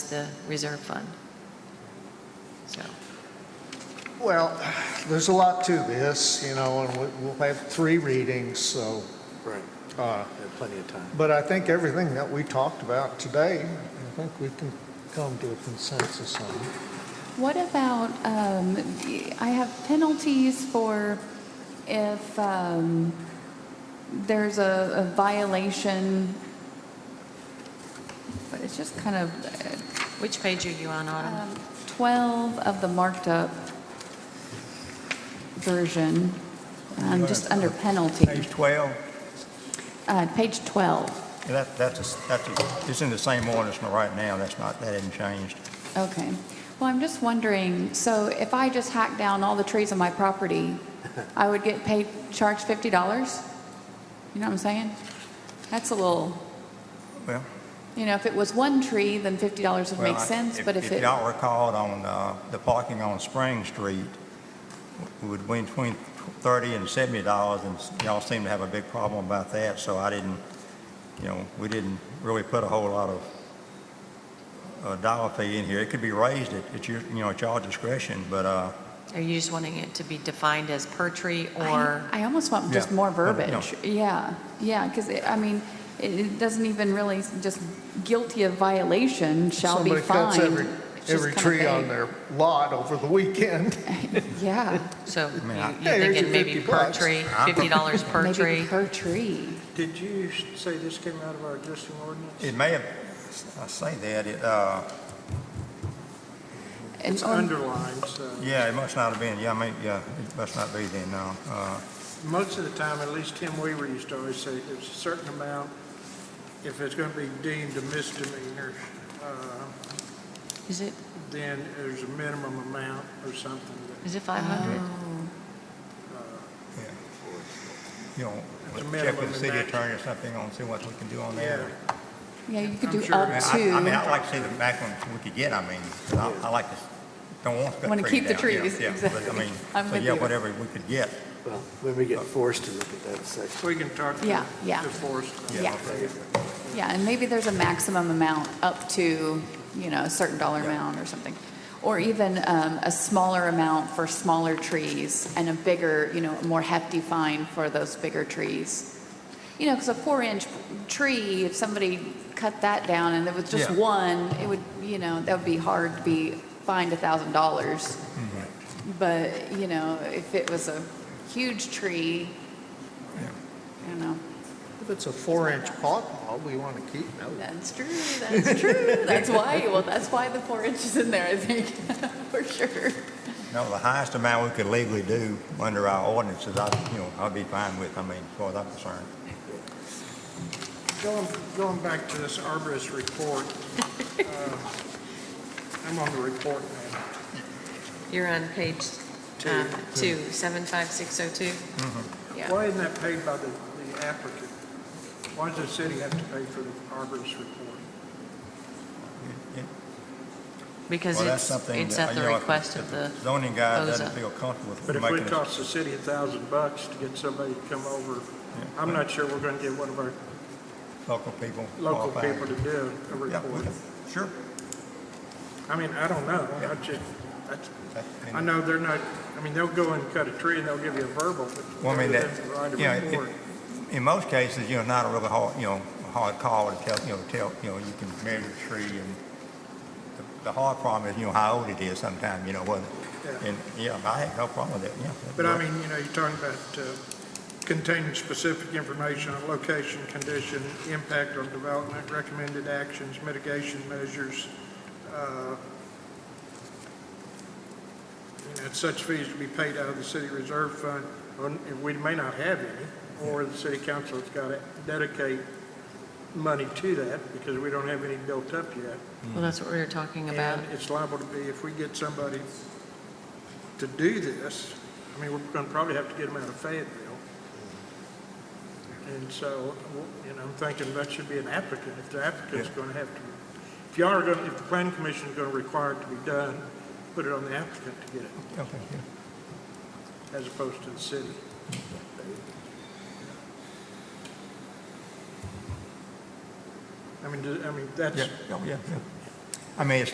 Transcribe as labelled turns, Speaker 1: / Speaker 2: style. Speaker 1: the reserve fund. So,
Speaker 2: Well, there's a lot to this, you know, and we- we'll have three readings, so,
Speaker 3: Right,
Speaker 2: uh,
Speaker 3: we have plenty of time.
Speaker 2: but I think everything that we talked about today, I think we can come to a consensus on.
Speaker 4: What about, um, I have penalties for if um, there's a a violation, but it's just kind of
Speaker 1: which page are you on,
Speaker 4: uh,
Speaker 1: Autumn?
Speaker 4: um, 12 of the marked up version, um, just under penalty,
Speaker 5: Page 12,
Speaker 4: Uh, page 12,
Speaker 5: Yeah, that, that's, a s- that's, a- it's in the same ordinance right now, that's not, that hasn't changed.
Speaker 4: okay. Well, I'm just wondering, so if I just hack down all the trees on my property, I would get paid, charged $50? You know what I'm saying? That's a little,
Speaker 5: Well,
Speaker 4: you know, if it was one tree, then $50 would
Speaker 5: well,
Speaker 4: make
Speaker 5: I-
Speaker 4: sense, but if
Speaker 5: If
Speaker 4: it,
Speaker 5: y'all recalled on, uh, the parking on Spring Street, w- would be between 30 and 70 dollars, and s- y'all seem to have a big problem about that, so I didn't, you know, we didn't really put a whole lot of uh, dollar fee in here. It could be raised at, at your, you know, at y'all discretion, but, uh,
Speaker 1: Are you just wanting it to be defined as per tree
Speaker 4: I
Speaker 1: or,
Speaker 4: I almost want just
Speaker 5: Yeah.
Speaker 4: more
Speaker 5: No, no.
Speaker 4: verbiage. Yeah, yeah, because, I mean, it- it doesn't even really, just guilty of violation shall be
Speaker 2: Somebody cuts every,
Speaker 4: fined. It's just
Speaker 2: every
Speaker 4: kinda
Speaker 2: tree on
Speaker 4: vague.
Speaker 2: their lot over the weekend.
Speaker 4: Yeah,
Speaker 1: so you-
Speaker 5: mean, I-
Speaker 1: you're
Speaker 2: Hey, here's
Speaker 1: thinking
Speaker 2: your
Speaker 1: maybe
Speaker 2: 50
Speaker 1: per
Speaker 2: bucks.
Speaker 1: tree, $50 per
Speaker 4: maybe
Speaker 1: tree?
Speaker 4: per tree.
Speaker 3: Did you s- say this came out of our existing ordinance?
Speaker 5: it may have, I say that, it, uh,
Speaker 3: It's
Speaker 4: on-
Speaker 3: underlined, so
Speaker 5: Yeah, it must not have been, yeah, I mean, yeah, it must not be then, no. Uh,
Speaker 3: most of the time, at least Tim Weaver used to always say, it's a certain amount, if it's going to be deemed a misdemeanor, uh,
Speaker 1: Is it,
Speaker 3: then there's a minimum amount or something that,
Speaker 1: is it 500?
Speaker 4: Uh, Oh.
Speaker 5: yeah. You know,
Speaker 3: It's a
Speaker 5: check
Speaker 3: minimum
Speaker 5: with the city
Speaker 3: maximum.
Speaker 5: attorney or something on, see what we can do on that.
Speaker 3: yeah.
Speaker 4: Yeah, you could
Speaker 3: I'm
Speaker 4: do
Speaker 3: sure
Speaker 5: I mean,
Speaker 4: up
Speaker 5: I- I mean,
Speaker 4: to,
Speaker 5: I'd like to see the maximum we could get, I mean, 'cause I I like to, don't want to cut
Speaker 4: Wanna
Speaker 5: trees
Speaker 4: keep the
Speaker 5: down, yeah,
Speaker 4: trees,
Speaker 5: yeah,
Speaker 4: exactly.
Speaker 5: But I mean,
Speaker 4: I'm
Speaker 5: so
Speaker 4: with
Speaker 5: yeah,
Speaker 4: you.
Speaker 5: whatever we could get.
Speaker 6: Well, when we get forced to look at that section.
Speaker 3: We can talk to
Speaker 4: Yeah, yeah.
Speaker 3: the forest.
Speaker 4: Yeah. yeah, and maybe there's a maximum amount up to, you know, a certain dollar
Speaker 5: Yeah.
Speaker 4: amount or something. Or even um, a smaller amount for smaller trees and a bigger, you know, more hefty fine for those bigger trees. You know, because a four-inch tree, if somebody cut that down and there was just
Speaker 5: Yeah.
Speaker 4: one, it would, you know, that would be hard to be fined a thousand dollars.
Speaker 5: Mm-hmm.
Speaker 4: But, you know, if it was a huge tree, I don't know.
Speaker 2: If it's a four-inch pawpaw, we want to keep it.
Speaker 4: That's true. That's true. That's why. Well, that's why the four inches in there, I think, for sure.
Speaker 5: No, the highest amount we could legally do under our ordinances, I, you know, I'd be fine with, I mean, as far as I'm concerned.
Speaker 3: Going, going back to this arborist report, uh, I'm on the report now.
Speaker 1: You're on page
Speaker 3: Two.
Speaker 1: um, two, 75602? Yeah.
Speaker 3: Why isn't that paid by the the applicant? Why does the city have to pay for the arborist report?
Speaker 5: It- it-
Speaker 1: Because
Speaker 5: Well, that's
Speaker 1: it's,
Speaker 5: something
Speaker 1: it's
Speaker 5: that,
Speaker 1: at
Speaker 5: you
Speaker 1: the
Speaker 5: know, if
Speaker 1: request of the,
Speaker 5: Zoning guy doesn't
Speaker 1: OZA.
Speaker 5: feel comfortable with
Speaker 3: But
Speaker 5: making
Speaker 3: if it
Speaker 5: us-
Speaker 3: costs the city a thousand bucks to get somebody to come over,
Speaker 5: Yeah.
Speaker 3: I'm not sure we're going to get one of our
Speaker 5: local people
Speaker 3: local
Speaker 5: qualified.
Speaker 3: people to do a
Speaker 5: Yeah,
Speaker 3: report.
Speaker 5: we- sure.
Speaker 3: I mean, I don't know. I just, that's-
Speaker 5: That- and- uh,
Speaker 3: I know they're not, I mean, they'll go and cut a tree and they'll give you a verbal, but
Speaker 5: Well, I mean,
Speaker 3: rather
Speaker 5: that,
Speaker 3: than write a
Speaker 5: you know, it-
Speaker 3: report.
Speaker 5: in most cases, you know, not a really hard, you know, a hard call to tell, you know, tell, you know, you can measure the tree and the- the hard problem is, you know, how old it is sometime, you know, whether,
Speaker 3: Yeah.
Speaker 5: and, yeah, I had no problem with that, yeah.
Speaker 3: But I mean, you know, you're talking about uh, containing specific information on location, condition, impact on development, recommended actions, mitigation measures. uh, You know, such fees to be paid out of the city reserve fund, or we may not have any, or the city council's got to dedicate money to that because we don't have any built up yet.
Speaker 1: well, that's what we were talking about.
Speaker 3: And it's liable to be, if we get somebody to do this, I mean, we're going to probably have to get them out of Fayetteville. And so, you know, I'm thinking that should be an applicant, if the applicant's going to have to, if y'all are going, to if the planning commission is going to require it to be done, put it on the applicant to get it,
Speaker 5: Okay, yeah.
Speaker 3: as opposed to the city. I mean, do- I mean, that's,
Speaker 5: Oh, Yeah, yeah, yeah, I mean, it's